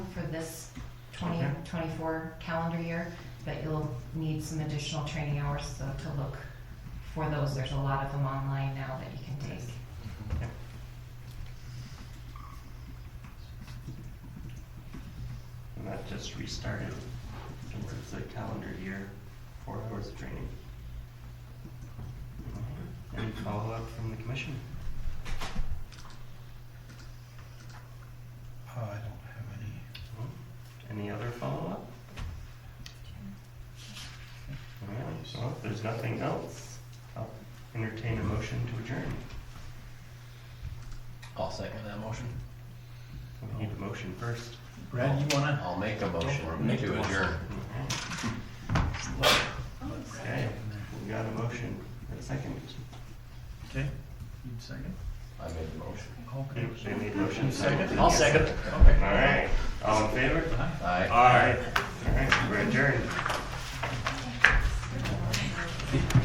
for this twenty twenty-four calendar year, but you'll need some additional training hours, so to look for those. There's a lot of them online now that you can take. And that just restarted towards the calendar year, four hours of training. Any follow-up from the commission? Uh, I don't have any. No? Any other follow-up? All right, so if there's nothing else, I'll entertain a motion to adjourn. I'll second that motion. We need a motion first. Brad, you wanna? I'll make a motion Make to a motion. adjourn. All right, Okay, we got a motion, a second. Okay, you second? I made the motion. Okay. They made motion. Second? I'll second. All right, all in favor? Aye. All right, all right, we're adjourned.